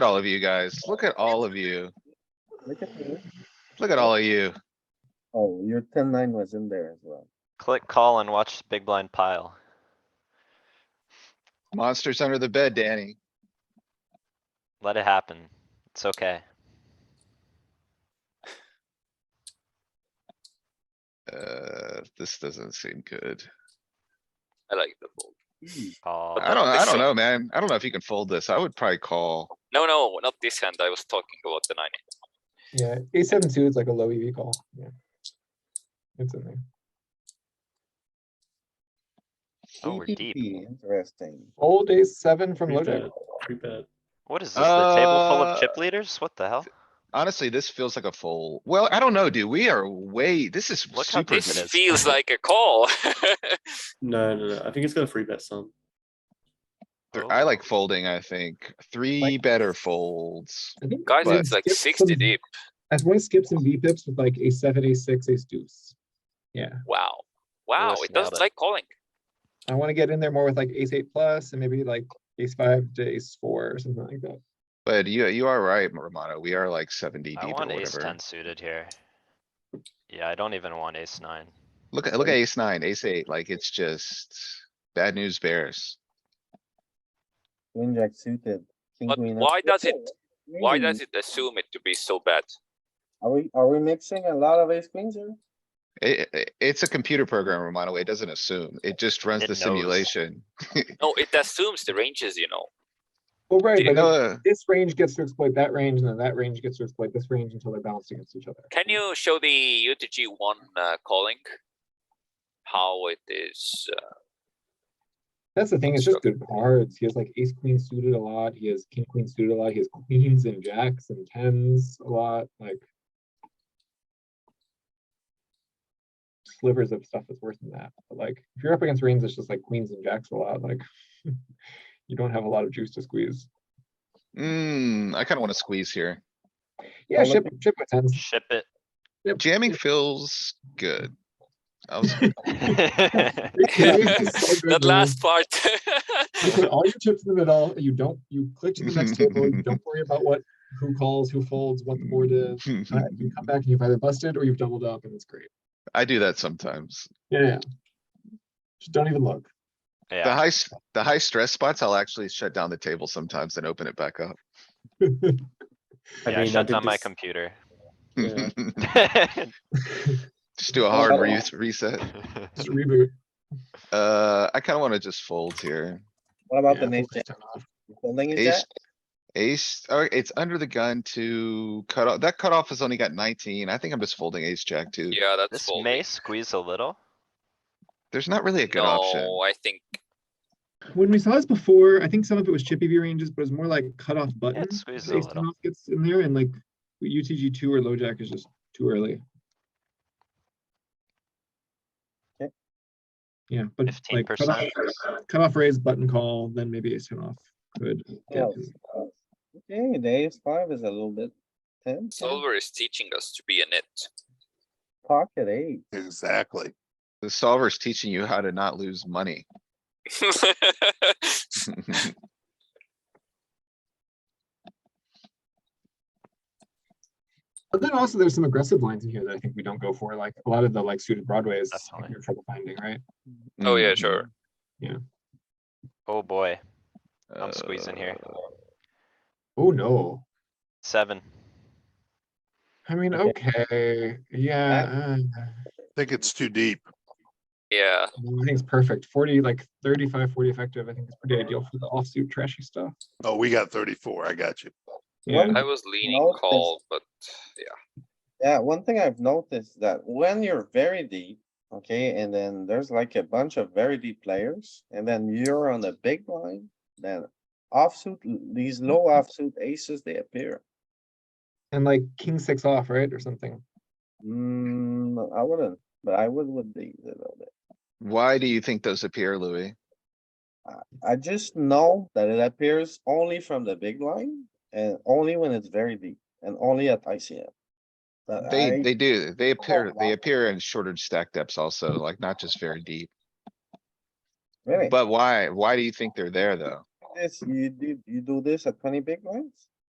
at all of you guys. Look at all of you. Look at me. Look at all of you. Oh, your ten nine was in there as well. Click call and watch big blind pile. Monsters under the bed, Danny. Let it happen. It's okay. Uh, this doesn't seem good. I like the fold. Call. I don't, I I think don't so. know, man. I don't know if you can fold this. I would probably call. No, no, not this hand. I was talking about the nine. Yeah, a seven two is like a low EV call, yeah. It's in there. Oh, we're deep. EPP, Interesting. Old ace seven from low Three jack. bet, three bet. What is this? The table full of Uh, chip leaders? What the hell? Honestly, this feels like a fold. Well, I don't know, dude. We are way, this is Look how super. deep it This is. feels like a call. No, no, no. I think it's gonna three bet some. th- I like folding, I think. Three better folds. I think Guys, we've it's like skipped sixty some- deep. I've only skipped some V pips with like ace seven, ace six, ace deuce. Yeah, Wow. Wow, Listen it doesn't at it. like calling. I wanna get in there more with like ace eight plus and maybe like ace five to ace four or something like that. But you, you are right, Romano. We are like seventy I deep or want ace whatever. ten suited here. Yeah, I don't even want ace nine. Look, at look at ace nine, ace eight, like it's just bad news bears. Queen jack suited. king, But queen, why up- does it- Why Really? does it assume it to be so bad? Are we, are we mixing a lot of ace queens here? It, it, it's a computer program, Romano. It doesn't assume. It just runs It the knows. simulation. No, it assumes the ranges, you know. Well, right, Do You but know, then uh, this range gets to exploit that range and then that range gets to exploit this range until they're balanced against each other. Can you show the UTG one uh, calling? How it is, uh, That's the thing, it's just good cards. He has like ace queen suited a lot, he has king queen suited a lot, he has queens and jacks and tens a lot, like. Slivers of stuff is worse than that, but like, if you're up against range that's just like queens and jacks a lot, like. You don't have a lot of juice to squeeze. mm, I kinda wanna squeeze here. Yeah, Well, let ship, ship with tens. Ship it. Jamming feels good. I was, that last part. You put all your chips in the middle, you don't, you glitch to the next table, you don't worry about what, who calls, who folds, what the board is. uh, You come back and you've either busted or you've doubled up and it's great. I do that sometimes. Yeah, yeah. Just don't even look. The Yeah, high, s- the high stress spots, I'll actually shut down the table sometimes and open it back up. I yeah, I mean, I shut did down my this- computer. Yeah. Just do a hard re- reset. Just reboot. Uh, I kinda wanna just fold here. What about Yeah, the ace we'll jack? just turn off. You Folding a Ace, jack? ace, oh, it's under the gun to cut off. That cutoff has only got nineteen. I think I'm just folding ace jack too. Yeah, that's This fold. may squeeze a little. There's not really a good option. No, I think When we saw this before, I think some of it was chippy V ranges, but it's more like cutoff button. squeezes Ace a ten little. off Gets in there and like UTG two or low jack is just too early. Okay. Yeah, but like 15%. cutoff, cutoff raise, button call, then maybe ace ten off could. get Yes. in. Oh, Okay, the ace five is a little bit tense. huh? solver is teaching us to be a nit. Pocket eight. Exactly. The solver's teaching you how to not lose money. But then also there's some aggressive lines in here that I think we don't go for, like a lot of the like suited broadways, Definitely. you're trouble finding, right? Oh, yeah, sure. Oh, boy. Mhm. I'm squeezing here. Uh, Oh, no. Seven. I mean, Okay. okay, yeah. uh, Think it's too deep. Yeah, I think it's perfect. 40, like 35, 40 effective, I think is pretty ideal for the offsuit trashy stuff. Oh, we got thirty-four. I got you. Yeah. I was leaning No, it's- call, but Yeah, one thing I've noticed that when you're very deep, okay, and then there's like a bunch of very deep players, and then you're on the big blind, then offsuit, these low Mm-hmm. offsuit aces, they appear. And like king six off, right? Or something. Hmm, I wouldn't, but I would with these a little bit. Why do you think those appear, Louis? I just know that it appears only from the big line and only when it's very deep and only at ICM. But They, I- they do. They appear, they wow. appear in shorter stack depths also, like not just very deep. really, But why, why do you think they're there though? this, you do, you do this at twenty big lines?